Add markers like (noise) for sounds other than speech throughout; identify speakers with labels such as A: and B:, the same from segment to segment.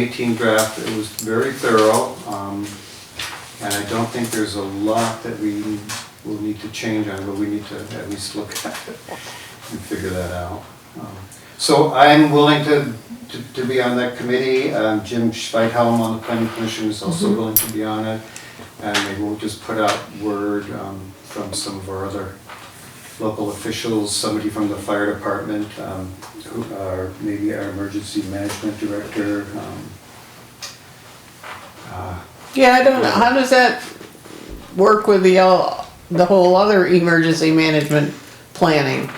A: 18 draft, it was very thorough, um, and I don't think there's a lot that we will need to change on, but we need to at least look at it and figure that out. Um, So I'm willing to, to- to be on that committee, Um, Jim Schweithelm on the planning commission is also willing to be on it, and maybe we'll just put out word um, from some of our other local officials, somebody from the fire department, um, who, or maybe our emergency management director. um, uh,
B: Yeah, I don't know. How does that work with the, el- the whole other emergency management planning?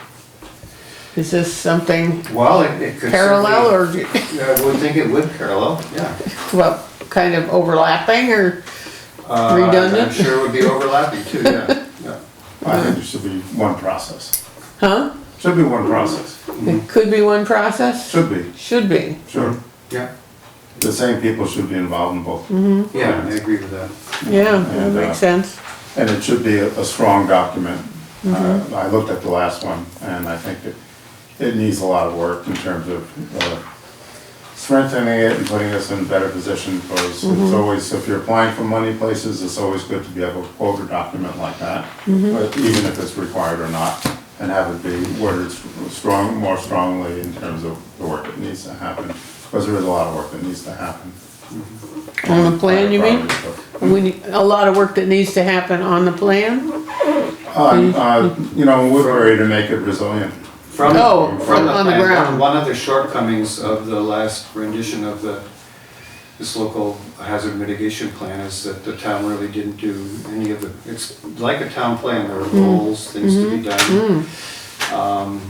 B: Is this something
A: Well, it it could.
B: parallel
A: certainly-
B: or,
A: Yeah, I would think it would parallel, yeah.
B: well, kind of overlapping or?
A: Uh, I'm
B: Redundant?
A: sure it would be overlapping too, yeah, yeah.
C: I think there should be one process.
B: Huh?
C: Should be one process.
B: It could be one process?
C: Should be,
B: Should be.
C: sure.
A: Yeah,
C: The same people should be involved in both.
A: yeah, I agree with that.
B: Yeah, that
C: And, uh,
B: makes sense.
C: And it should be a, a strong document. Uh,
B: Mm-hmm.
C: I looked at the last one and I think it, it needs a lot of work in terms of uh, strengthening it and putting us in better position because
B: Mm-hmm.
C: it's always, if you're applying for money places, it's always good to be able to quote a document like that.
B: Mm-hmm.
C: but Even if it's required or not, and have it be worded s- strong, more strongly in terms of the work that needs to happen. Because there is a lot of work that needs to happen.
B: On the plan, you mean? We, need- a lot of work that needs to happen on the plan?
C: Uh, uh, you know, Woodbury to make it resilient.
A: From,
B: Oh,
A: from the
B: on the
A: plan,
B: ground.
A: One of the shortcomings of the last rendition of the, this local hazard mitigation plan is that the town really didn't do any of the, it's like a town plan, there are
B: Hmm.
A: goals, things to be
B: Mm-hmm.
A: done. Um,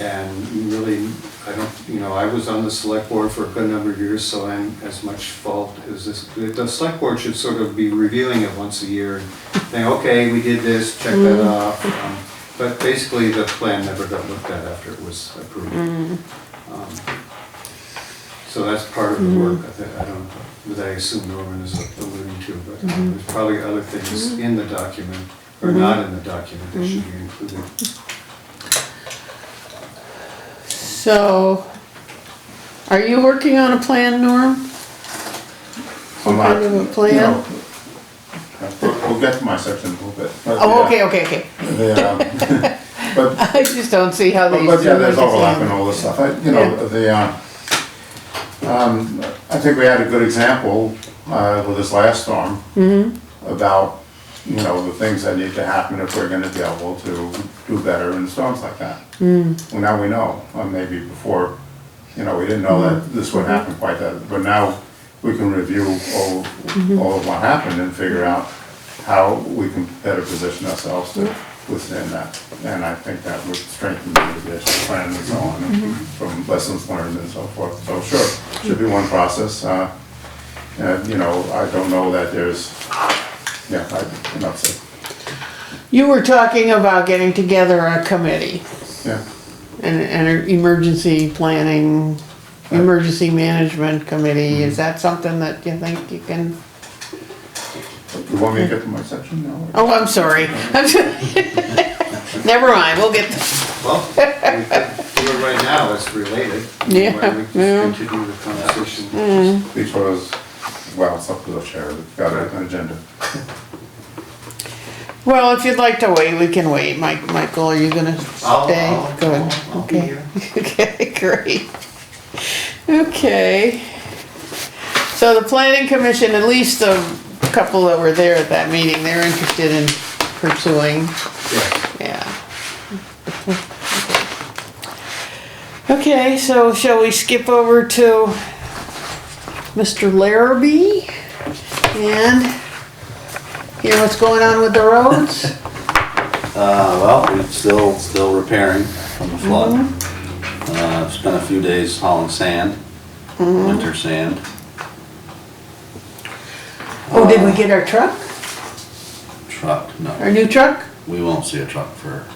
A: And really, I don't, you know, I was on the select board for a good number of years, so I'm as much fault as this. The select board should sort of be reviewing it once a year, and saying, okay, we did this, check
B: Mm.
A: that off. Um, But basically, the plan never got looked at after it was approved.
B: Mm.
A: Um, So that's part of
B: Mm.
A: the work, I think, I don't, that I assume Norman is alluding to, but
B: Mm-hmm.
A: there's probably other things in the document, or not in the document, that should be included.
B: So, are you working on a plan, Norm?
C: I'm not-
B: Kind of a plan?
C: you know, We'll we'll get to my section in a little bit. but,
B: Oh,
C: yeah,
B: okay, okay, okay.
C: the, um, (laughs)
B: (laughs)
C: But,
B: I just don't see how
C: but
B: these.
C: but yeah,
B: two
C: there's
B: work
C: overlap and
B: together.
C: all this stuff, I- you know,
B: Yeah.
C: the, uh, um, I think we had a good example uh, with this last storm
B: Mm-hmm.
C: about, you know, the things that need to happen if we're gonna be able to do better in storms like that. Well, now we know, or maybe before, you know, we didn't know that this would happen quite that, but now we can review all, all of what happened and figure out how we can better position ourselves to withstand that. And I think that would strengthen the mitigation plan and so on, and from lessons learned and so forth. So sure, should be one process. uh, And, you know, I don't know that there's, yeah, I, enough said,
B: You were talking about getting together a committee
C: yeah.
B: an an emergency planning, emergency management committee.
C: Mm-hmm.
B: Is that something that you think you can?
C: You want me to get to my section now? or-
B: Oh, I'm sorry. (laughs) Never mind, we'll get,
A: Well, we could do it right now, it's related.
B: (laughs) Yeah,
A: Why don't we just
B: yeah. Mm.
A: continue the conversation?
C: Because, well, it's up to the chair, we've got an agenda.
B: well, if you'd like to wait, we can wait. Mike, Michael, are you gonna
A: I'll-
B: stay?
A: I'll-
B: Good,
A: I'll- I'll be
B: okay.
A: here.
B: (laughs) Okay, great. Okay. So the planning commission, at least the couple that were there at that meeting, they're interested in pursuing,
A: Yeah.
B: yeah. Okay, so shall we skip over to Mr. Larrabee? And hear what's going on with the roads?
D: Uh, well, we're still, still repairing from the flood.
B: Mm-hmm.
D: Uh, I've spent a few days hauling sand, winter sand.
B: (laughs) Oh, did we get our truck?
D: Truck,
B: Our
D: no,
B: new truck?
D: we won't see a truck for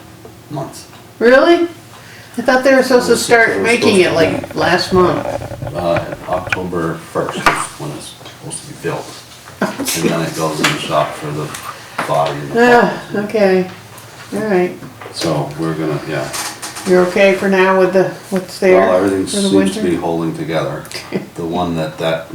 D: months.
B: Really? I thought they were supposed to
D: They
B: start
D: were
B: making it
D: supposed to-
B: like last month.
D: Uh, October first is when it's supposed to be built. And then it goes in the shop for the body and the.
B: Ah, okay, alright.
D: So we're gonna, yeah,
B: You're okay for now with the, what's there?
D: Well, everything
B: for the
D: seems
B: winter?
D: to be holding together. The one that, that